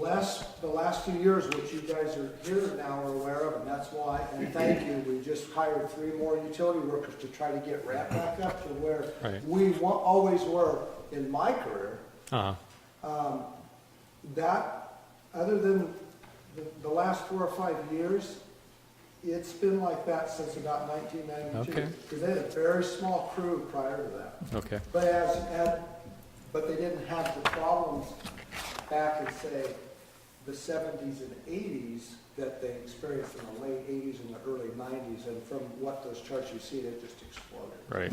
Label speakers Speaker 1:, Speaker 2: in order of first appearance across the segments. Speaker 1: Last, the last few years, which you guys are here now are aware of, and that's why, and thank you, we just hired three more utility workers to try to get Rat back up to where
Speaker 2: Right.
Speaker 1: we wa- always were in my career.
Speaker 2: Uh-huh.
Speaker 1: That, other than the, the last four or five years, it's been like that since about nineteen ninety-two.
Speaker 2: Okay.
Speaker 1: Because they had a very small crew prior to that.
Speaker 2: Okay.
Speaker 1: But as, and, but they didn't have the problems back in, say, the seventies and eighties that they experienced in the late eighties and the early nineties, and from what those charts you see, they just exploded.
Speaker 2: Right.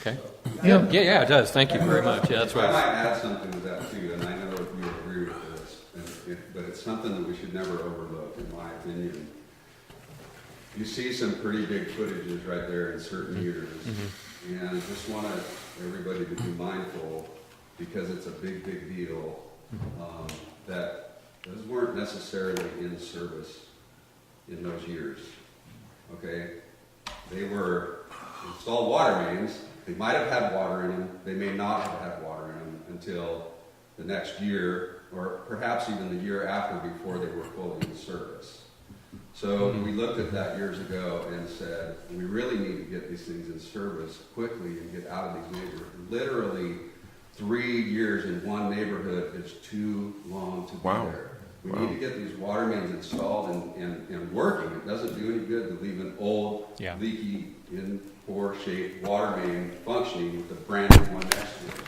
Speaker 2: Okay.
Speaker 3: Yeah.
Speaker 2: Yeah, yeah, it does. Thank you very much. Yeah, that's
Speaker 4: I
Speaker 2: right.
Speaker 4: might add something to that too, and I know if you agree with this, and it- but it's something that we should never overlook, in my opinion. You see some pretty big footages right there in
Speaker 2: Mm-hmm.
Speaker 4: certain years, and I just want everybody to be mindful, because it's a big, big deal,
Speaker 2: Mm-hmm.
Speaker 4: um, that those weren't necessarily in service in those years, okay? They were installed water mains. They might have had water in them. They may not have had water in them until the next year, or perhaps even the year after, before they were fully in service. So
Speaker 3: Hmm.
Speaker 4: we looked at that years ago and said, we really need to get these things in service quickly and get out of these neighborhoods. Literally, three years in one neighborhood is too long to
Speaker 3: Wow.
Speaker 4: be there. We need to get these water mains installed and, and, and working. It doesn't do any good to leave an old,
Speaker 2: Yeah.
Speaker 4: leaky, in poor shape water main functioning with the brand new one next to it.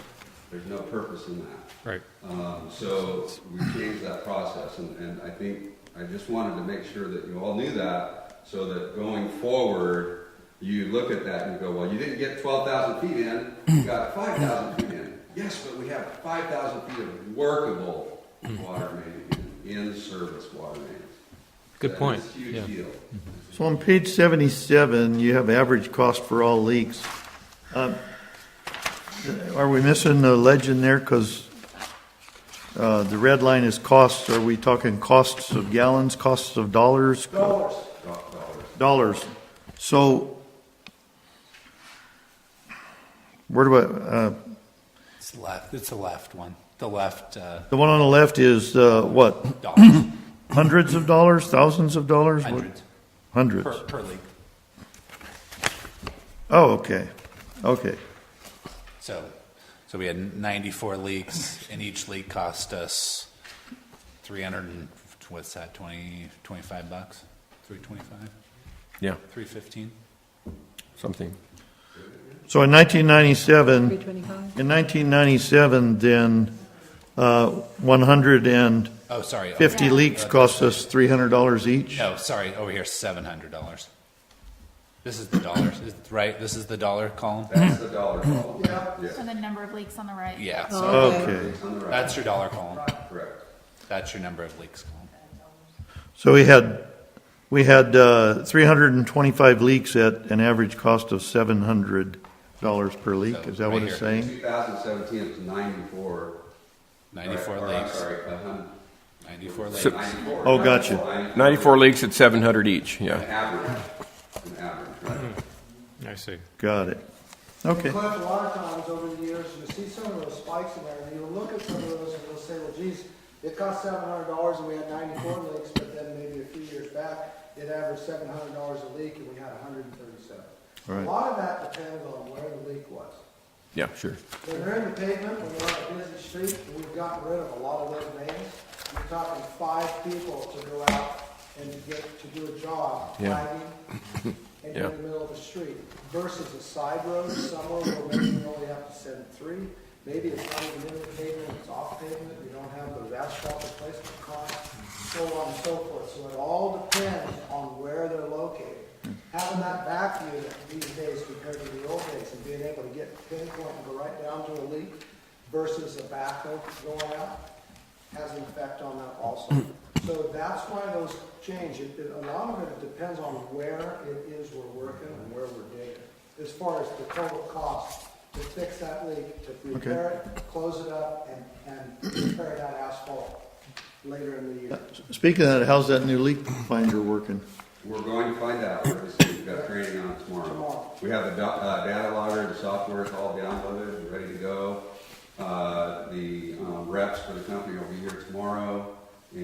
Speaker 4: There's no purpose in that.
Speaker 2: Right.
Speaker 4: Um, So we changed that process, and, and I think, I just wanted to make sure that you all knew that, so that going forward, you look at that and go, well, you didn't get twelve thousand feet in, you got five thousand feet in. Yes, but we have five thousand feet of workable water main, in service water mains.
Speaker 2: Good point.
Speaker 4: That's a
Speaker 2: Yeah.
Speaker 4: huge deal.
Speaker 3: So on page 77, you have average cost for all leaks. Um, Are we missing a legend there? Because the red line is costs. Are we talking costs of gallons, costs of dollars?
Speaker 1: Dollars,
Speaker 3: Dollars. So where do I, uh,
Speaker 5: It's left. It's the left one. The left uh,
Speaker 3: the one on the left is uh, what?
Speaker 5: dollars,
Speaker 3: Hundreds of dollars, thousands of dollars? What-
Speaker 5: hundreds
Speaker 3: Hundreds.
Speaker 5: per, per league.
Speaker 3: Oh, okay, okay.
Speaker 5: So, so we had 94 leaks, and each leak cost us 300. And, what's that? 20, 25 bucks? 325?
Speaker 6: Yeah,
Speaker 5: 315?
Speaker 6: something.
Speaker 3: So in 1997,
Speaker 7: 325.
Speaker 3: In 1997, then, uh, 150
Speaker 5: Oh, sorry. over-
Speaker 3: leaks cost us $300 each?
Speaker 5: No, sorry. Over here, $700. This is the dollars, is- right? This is the dollar column.
Speaker 4: That's the dollar column.
Speaker 8: So the number of leaks on the right.
Speaker 5: Yeah. So
Speaker 3: Okay,
Speaker 4: It's on the right,
Speaker 5: that's your dollar column.
Speaker 4: correct.
Speaker 5: That's your number of leaks column.
Speaker 3: so we had, we had uh, 325 leaks at an average cost of $700 per leak, is that what it's
Speaker 5: So, right
Speaker 3: saying?
Speaker 4: Two thousand seventeen, it was ninety-four.
Speaker 5: 94
Speaker 4: or- or, I'm
Speaker 5: leaks.
Speaker 4: Sorry, a hundred.
Speaker 5: 94 leaks.
Speaker 6: So-
Speaker 4: Ninety-four.
Speaker 3: Oh, gotcha.
Speaker 6: 94 leaks at 700 each,
Speaker 4: An
Speaker 6: yeah.
Speaker 4: average, an average, right?
Speaker 2: I see.
Speaker 3: Got it. Okay,
Speaker 1: Cliff, a lot of times over the years, you see some of those spikes in there, and you look at some of those and you'll say, well, geez, it cost seven hundred dollars and we had ninety-four leaks, but then maybe a few years back, it averaged seven hundred dollars a leak and we had hundred and thirty-seven. A
Speaker 3: Right.
Speaker 1: lot of that depends on where the leak was.
Speaker 6: Yeah, sure.
Speaker 1: When they're in the pavement, when they're on a busy street, and we've gotten rid of a lot of those names, you're talking five people to go out and to get, to do a job,
Speaker 6: Yeah.
Speaker 1: flagging, and in
Speaker 6: Yeah.
Speaker 1: the middle of the street, versus a side road somewhere where maybe you only have to send three, maybe it's not even in the pavement, it's off pavement, you don't have the asphalt replacement cost, so on and so forth, so it all depends on where they're located. Having that back view these days compared to the old days, and being able to get pinpoint and go right down to a leak versus a backhoe going out, has an effect on that also. So that's why those change. It- it- A lot of it depends on where it is we're working and where we're digging, as far as the total cost to fix that leak, to repair it, close it up, and, and repair that asphalt later in the year.
Speaker 3: speaking of that, how's that new leak finder working?
Speaker 4: We're going to find out, we're just, we've got training on it
Speaker 1: Tomorrow.
Speaker 4: tomorrow. We have the do- uh, data logger, the software is all downloaded, and ready to go. Uh, the um, reps for the company will be here tomorrow.